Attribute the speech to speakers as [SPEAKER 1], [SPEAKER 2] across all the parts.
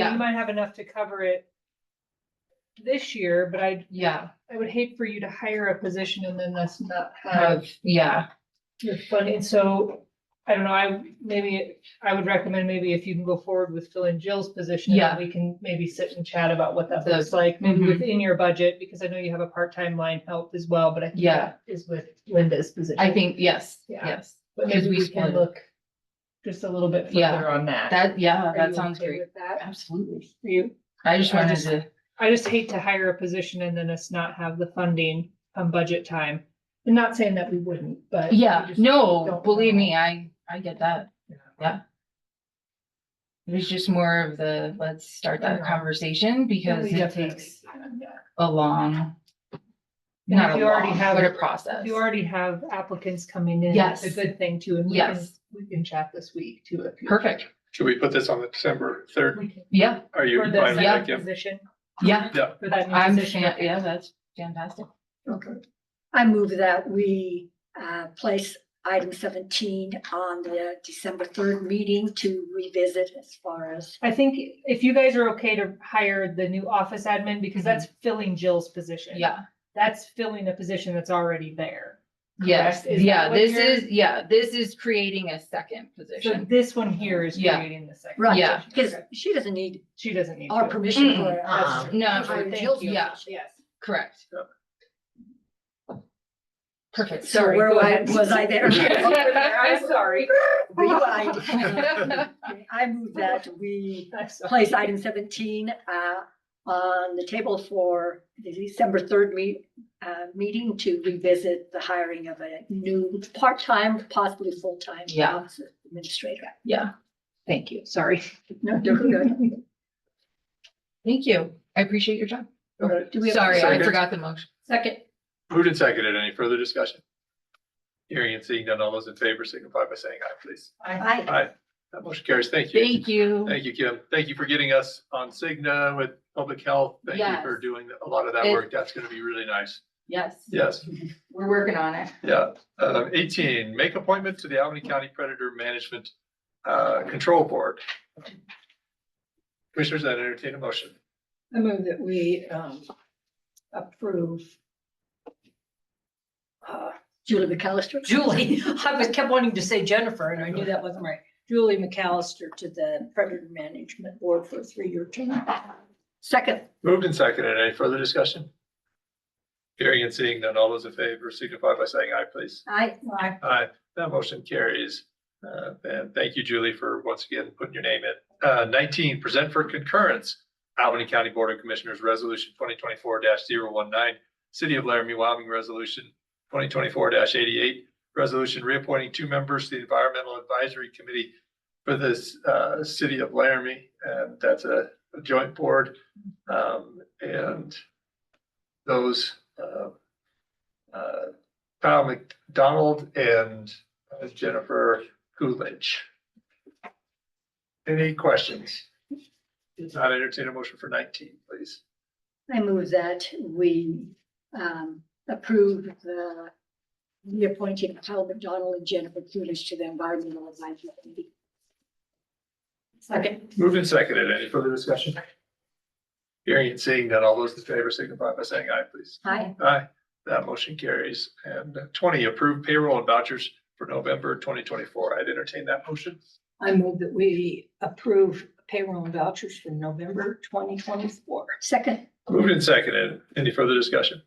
[SPEAKER 1] you
[SPEAKER 2] Yeah.
[SPEAKER 1] might have enough to cover it this year, but I,
[SPEAKER 2] yeah,
[SPEAKER 1] I would hate for you to hire a position and then that's not have
[SPEAKER 2] have, yeah,
[SPEAKER 1] your funding, so I don't know, I, maybe, I would recommend maybe if you can go forward with filling Jill's position. and
[SPEAKER 2] Yeah.
[SPEAKER 1] We can maybe sit and chat about what that
[SPEAKER 2] The-
[SPEAKER 1] looks like, maybe
[SPEAKER 2] Mhm.
[SPEAKER 1] within your budget, because I know you have a part-time line help as well, but I think
[SPEAKER 2] Yeah.
[SPEAKER 1] that is with Linda's position.
[SPEAKER 2] I think, yes,
[SPEAKER 1] Yeah.
[SPEAKER 2] yes.
[SPEAKER 1] But
[SPEAKER 2] because
[SPEAKER 1] maybe
[SPEAKER 2] we
[SPEAKER 1] we can
[SPEAKER 2] split.
[SPEAKER 1] look just a little bit
[SPEAKER 2] Yeah.
[SPEAKER 1] further on that.
[SPEAKER 2] That, yeah,
[SPEAKER 1] Are you
[SPEAKER 2] that sounds
[SPEAKER 1] okay
[SPEAKER 2] great.
[SPEAKER 1] with That,
[SPEAKER 2] Absolutely.
[SPEAKER 1] Are you,
[SPEAKER 2] I just
[SPEAKER 1] I
[SPEAKER 2] wanted
[SPEAKER 1] just-
[SPEAKER 2] to,
[SPEAKER 1] I just hate to hire a position and then us not have the funding on budget time. And not saying that we wouldn't, but. we
[SPEAKER 2] yeah,
[SPEAKER 1] just
[SPEAKER 2] no,
[SPEAKER 1] don't
[SPEAKER 2] believe
[SPEAKER 1] know.
[SPEAKER 2] me, I, I get that.
[SPEAKER 1] Yeah.
[SPEAKER 2] Yeah. It was just more of the, let's start
[SPEAKER 1] I
[SPEAKER 2] that
[SPEAKER 1] know.
[SPEAKER 2] conversation because
[SPEAKER 1] We
[SPEAKER 2] it
[SPEAKER 1] definitely
[SPEAKER 2] takes
[SPEAKER 1] can, yeah.
[SPEAKER 2] a long,
[SPEAKER 1] And
[SPEAKER 2] not
[SPEAKER 1] if
[SPEAKER 2] a
[SPEAKER 1] you already
[SPEAKER 2] long,
[SPEAKER 1] have-
[SPEAKER 2] but a
[SPEAKER 1] if
[SPEAKER 2] process.
[SPEAKER 1] You already have applicants coming in.
[SPEAKER 2] Yes.
[SPEAKER 1] It's a good thing too. And we can,
[SPEAKER 2] Yes.
[SPEAKER 1] we can chat this week too. if you-
[SPEAKER 2] Perfect.
[SPEAKER 3] Should we put this on the December third?
[SPEAKER 1] We can-
[SPEAKER 2] Yeah,
[SPEAKER 3] Are you
[SPEAKER 1] For
[SPEAKER 3] fine
[SPEAKER 1] this
[SPEAKER 3] with
[SPEAKER 2] yeah.
[SPEAKER 3] that,
[SPEAKER 1] that
[SPEAKER 3] Kim?
[SPEAKER 1] position,
[SPEAKER 2] yeah.
[SPEAKER 1] for that new
[SPEAKER 2] I'm,
[SPEAKER 1] position.
[SPEAKER 2] fan- yeah, that's fantastic.
[SPEAKER 3] Okay.
[SPEAKER 4] I move that we uh, place item seventeen on the December third meeting to revisit as far as.
[SPEAKER 1] I think if you guys are okay to hire the new office admin, because that's filling Jill's position.
[SPEAKER 2] Mm-hmm. Yeah,
[SPEAKER 1] That's filling a position that's already there.
[SPEAKER 2] yes,
[SPEAKER 1] Correct. Is
[SPEAKER 2] yeah,
[SPEAKER 1] that what
[SPEAKER 2] this
[SPEAKER 1] you're-
[SPEAKER 2] is, yeah, this is creating a second
[SPEAKER 1] So
[SPEAKER 2] position.
[SPEAKER 1] this one here is
[SPEAKER 2] Yeah.
[SPEAKER 1] creating the second.
[SPEAKER 4] Right,
[SPEAKER 2] Yeah.
[SPEAKER 4] Because
[SPEAKER 1] Okay.
[SPEAKER 4] she doesn't need
[SPEAKER 1] She doesn't need.
[SPEAKER 4] our
[SPEAKER 1] to. Um,
[SPEAKER 4] permission
[SPEAKER 2] Mm-mm,
[SPEAKER 4] for. us
[SPEAKER 2] uh-uh,
[SPEAKER 4] to
[SPEAKER 2] no,
[SPEAKER 4] hire
[SPEAKER 1] Thank
[SPEAKER 4] Jill's
[SPEAKER 1] you.
[SPEAKER 2] yeah.
[SPEAKER 4] position.
[SPEAKER 1] Yes.
[SPEAKER 2] Correct. Perfect.
[SPEAKER 4] So
[SPEAKER 1] Sorry,
[SPEAKER 4] where
[SPEAKER 1] go
[SPEAKER 4] I-
[SPEAKER 1] ahead.
[SPEAKER 4] was I there?
[SPEAKER 1] I'm sorry.
[SPEAKER 4] Rewind. Okay, I move that we
[SPEAKER 1] I'm sorry.
[SPEAKER 4] place item seventeen uh, on the table for the December third meet, uh, meeting to revisit the hiring of a new part-time, possibly full-time
[SPEAKER 2] Yeah.
[SPEAKER 4] office administrator.
[SPEAKER 2] Yeah, thank you.
[SPEAKER 1] Sorry.
[SPEAKER 4] No, they're good.
[SPEAKER 2] Thank you. I appreciate your job.
[SPEAKER 3] Okay.
[SPEAKER 4] Do we have-
[SPEAKER 2] Sorry, I
[SPEAKER 3] Second.
[SPEAKER 2] forgot the motion.
[SPEAKER 4] Second.
[SPEAKER 3] Moved and seconded. Any further discussion? Hearing and seeing none, all those in favor signify by saying aye, please.
[SPEAKER 4] Aye.
[SPEAKER 3] Aye. That motion carries. Thank you.
[SPEAKER 2] Thank you.
[SPEAKER 3] Thank you, Kim. Thank you for getting us on Cigna with public health. Thank you for
[SPEAKER 2] Yes.
[SPEAKER 3] doing a lot of that
[SPEAKER 2] It-
[SPEAKER 3] work. That's gonna be really nice.
[SPEAKER 2] Yes,
[SPEAKER 3] Yes,
[SPEAKER 2] we're working on it.
[SPEAKER 3] yeah. Um, eighteen, make appointment to the Albany County Predator Management uh, Control Board. Commissioners, I entertain a motion.
[SPEAKER 1] I move that we um approve.
[SPEAKER 4] Uh, Julie McAllister.
[SPEAKER 5] Julie, I was kept wanting to say Jennifer, and I knew that wasn't right. Julie McAllister to the Predator Management Board for a three-year term.
[SPEAKER 4] Second.
[SPEAKER 3] Moved and seconded. Any further discussion? Hearing and seeing none, all those in favor signify by saying aye, please.
[SPEAKER 4] I,
[SPEAKER 5] I
[SPEAKER 3] Aye. Uh, That motion carries. Uh, and thank you, Julie, for once again putting your name in. Uh, nineteen, present for concurrence. Albany County Board of Commissioners Resolution twenty twenty-four 19 City of Laramie, Wyoming Resolution twenty twenty-four eighty-eight. Resolution reappointing two members to the Environmental Advisory Committee for this, uh, City of Laramie. And that's a a joint board. Um, and those, uh, uh, Kyle McDonald and uh, Jennifer Coolidge. Any questions? If not, entertain a motion for nineteen, please.
[SPEAKER 4] I move that we um, approve the reappointing of Kyle McDonald and Jennifer Kulish to the Environmental Advisory Committee. Second.
[SPEAKER 3] Moved and seconded. Any further discussion? Hearing and seeing that all those in favor signify by saying aye, please.
[SPEAKER 4] Aye.
[SPEAKER 3] Aye. That motion carries. And uh, twenty, approve payroll and vouchers for November twenty twenty-four. I'd entertain that motion.
[SPEAKER 5] I move that we approve payroll and vouchers for November twenty twenty-four.
[SPEAKER 4] Second.
[SPEAKER 3] Moved and seconded. Any further discussion?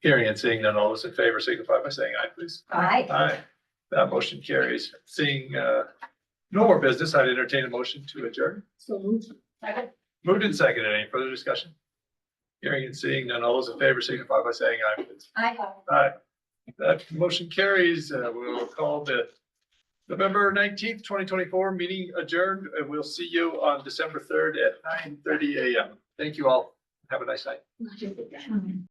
[SPEAKER 3] Hearing and seeing none, all those in favor signify by saying aye, please.
[SPEAKER 4] Aye.
[SPEAKER 3] Aye. That motion carries. Seeing uh, no more business, I'd entertain a motion to adjourn.
[SPEAKER 4] So moved.
[SPEAKER 3] Moved and seconded. Any further discussion? Hearing and seeing none, all those in favor signify by saying aye, please.
[SPEAKER 4] Aye.
[SPEAKER 3] Aye. That motion carries. Uh, We'll call the November nineteenth, twenty twenty-four meeting adjourned, and we'll see you on December third at nine thirty AM. Thank you all. Have a nice night.